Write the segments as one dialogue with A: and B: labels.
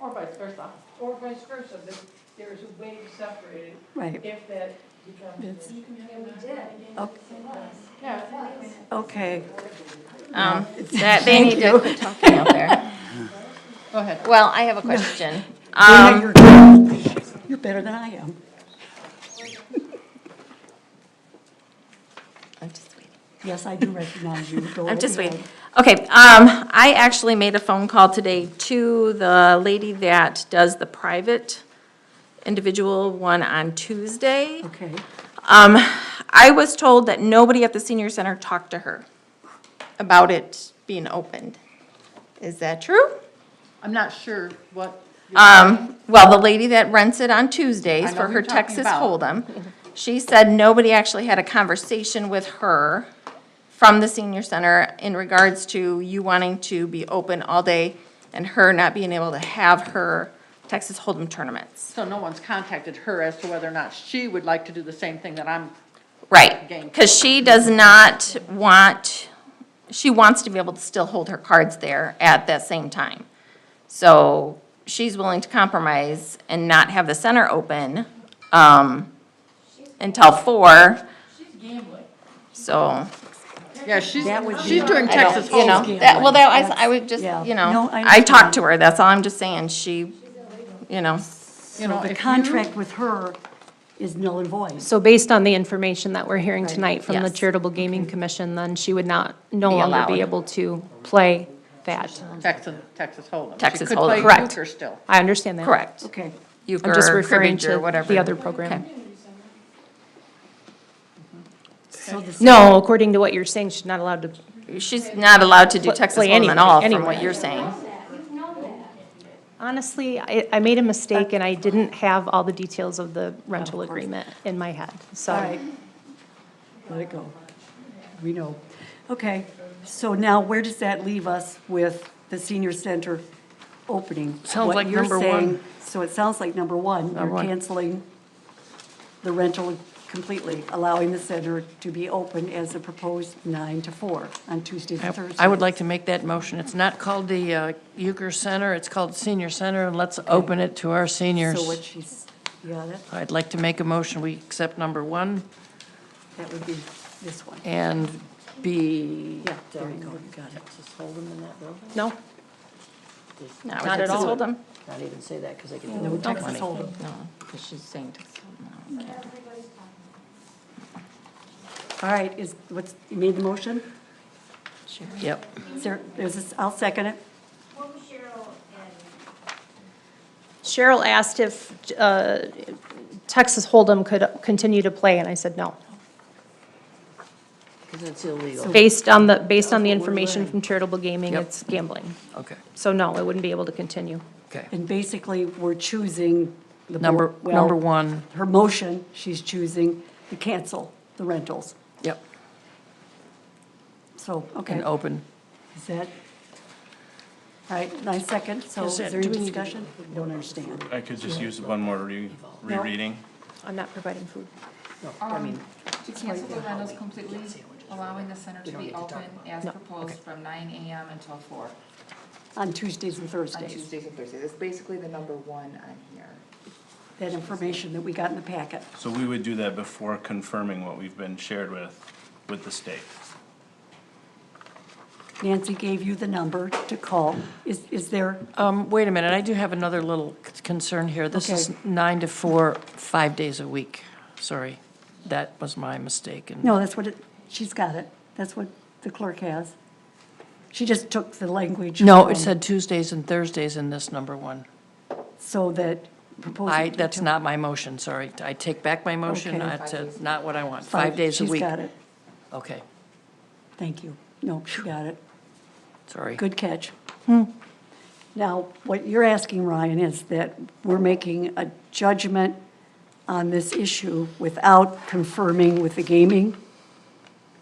A: vice versa.
B: or vice versa, but there's a way to separate it
C: Right,
B: if that becomes.
D: Um,
B: an
E: Yeah, we did.
A: Yeah.
C: okay. okay.
E: Yes.
D: Um, That they need to quit talking out there.
A: Go ahead.
D: Well, I have a question.
C: Dana,
D: Um,
C: you're- You're better than I am.
D: I'm just waiting.
C: Yes, I do recognize you. Go
D: I'm just
C: ahead.
D: waiting. Okay, um, I actually made a phone call today to the lady that does the private individual one on Tuesday.
C: Okay,
D: Um, I was told that nobody at the senior center talked to her about it being opened. Is that true?
A: I'm not sure what.
D: Um, well, the lady that rents it on Tuesdays
A: I know
D: for
A: who
D: her
A: you're talking
D: Texas
A: about.
D: Hold'em, she said nobody actually had a conversation with her from the senior center in regards to you wanting to be open all day and her not being able to have her Texas Hold'em tournaments.
A: So no one's contacted her as to whether or not she would like to do the same thing that I'm,
D: Right,
A: Game.
D: because she does not want, she wants to be able to still hold her cards there at that same time. So she's willing to compromise and not have the center open um, until four,
B: She's gambling.
D: so.
A: yeah, she's,
C: That would be-
A: she's doing
D: I don't-
A: Texas
D: You know,
A: Hold'em.
D: that, well, that, I,
C: That's-
D: I would just,
C: yeah.
D: you
C: No,
D: know,
C: I
D: I talked
C: understand.
D: to her, that's all I'm just saying, she, you know,
A: You know,
C: so
A: if
C: the
A: you-
C: contract with her is null and void.
F: So based on the information that we're hearing tonight from the
D: Yes.
F: Charitable Gaming Commission, then she would not, no
D: Be
F: longer
D: allowed.
F: be able to play that.
A: Texas, Texas Hold'em. She
D: Texas
A: could
D: Hold'em.
A: play
F: Correct.
A: euchre still.
F: I understand that.
D: correct.
C: Okay,
F: I'm just
D: Euchre,
F: referring
D: cribbage, or
F: to
D: whatever.
F: the other program.
D: Okay.
C: so the.
F: No, according to what you're saying, she's not allowed to,
D: She's not allowed to do
F: Play-
D: Texas
F: play
D: Hold'em
F: anything,
D: at all, from what
F: anyway.
D: you're saying.
F: honestly, I, I made a mistake and I didn't have all the details of the rental agreement in my head, so.
C: All right. Let it go. We know. Okay, so now where does that leave us with the senior center opening?
G: Sounds
C: What
G: like
C: you're
G: number one.
C: saying- So it sounds like number one, you're
G: Number one.
C: canceling the rental completely, allowing the center to be open as a proposed nine to four on Tuesdays and Thursdays.
G: I would like to make that motion. It's not called the uh, Euchre Center, it's called Senior Center, and let's open it to our
C: So what
G: seniors.
C: she's, yeah, that,
G: I'd like to make a motion, we accept number one
C: that would be this one.
G: and be.
C: Yeah, there you go, got it.
G: Texas Hold'em in that building?
F: No,
D: Not
G: Not
D: with
G: at
D: Texas
G: all.
D: Hold'em.
G: Not even say that because they can do
C: No,
G: it.
C: Texas Hold'em.
D: No, because she's saying Texas Hold'em.
C: All right, is, what's, you made the motion?
G: Yep.
C: Is there, is this, I'll second it.
F: Cheryl asked if, uh, Texas Hold'em could continue to play, and I said no.
G: Because it's illegal.
F: Based on the, based on the information from charitable gaming,
G: Yep.
F: it's gambling.
G: Okay,
F: So no, it wouldn't be able to continue.
G: okay.
C: And basically, we're choosing the.
G: Number,
C: board- well,
G: number one,
C: Her motion, she's choosing to cancel the rentals.
G: yep,
C: So, okay,
G: and oh. open.
C: is that? All right, my second, so is
G: Is that-
C: there any
G: do we need to-
C: discussion? Don't understand.
H: I could just use one more re- rereading.
F: I'm not providing food.
E: Um, To cancel the rentals completely, allowing the center to be open as proposed from nine AM until four
C: On Tuesdays and
E: on
C: Thursdays,
E: Tuesdays and Thursdays. That's basically the number one on here.
C: that information that we got in the packet.
H: So we would do that before confirming what we've been shared with, with the state.
C: Nancy gave you the number to call. Is, is there,
G: Um, wait a minute, I do have another little c- concern here. This is
C: Okay.
G: nine to four, five days a week. Sorry, that was my mistake. and-
C: no, that's what it, she's got it. That's what the clerk has. She just took the language.
G: No,
C: from-
G: it said Tuesdays and Thursdays in this number one.
C: So that proposal.
G: I, that's not my motion, sorry. I take back my motion.
C: Okay.
G: That's uh, not what I want. Five days a week.
C: She's got it.
G: Okay,
C: Thank you. No, she got it.
G: sorry.
C: Good catch. Hmm. Now, what you're asking, Ryan, is that we're making a judgment on this issue without confirming with the gaming?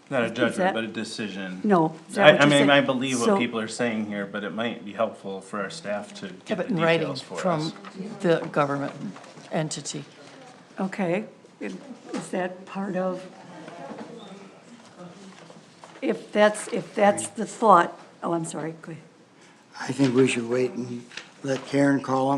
H: Not a
C: that-
H: judgment, but a decision.
C: No. is that
H: I,
C: what
H: I
C: you're
H: mean,
C: saying?
H: I believe
C: So-
H: what people are saying here, but it might be helpful for our staff to
G: Have
H: get the
G: it in writing
H: details for
G: from
H: us.
G: the government entity.
C: Okay, is that part of? If that's, if that's the thought, oh, I'm sorry, go ahead.
I: I think we should wait and let Karen call them.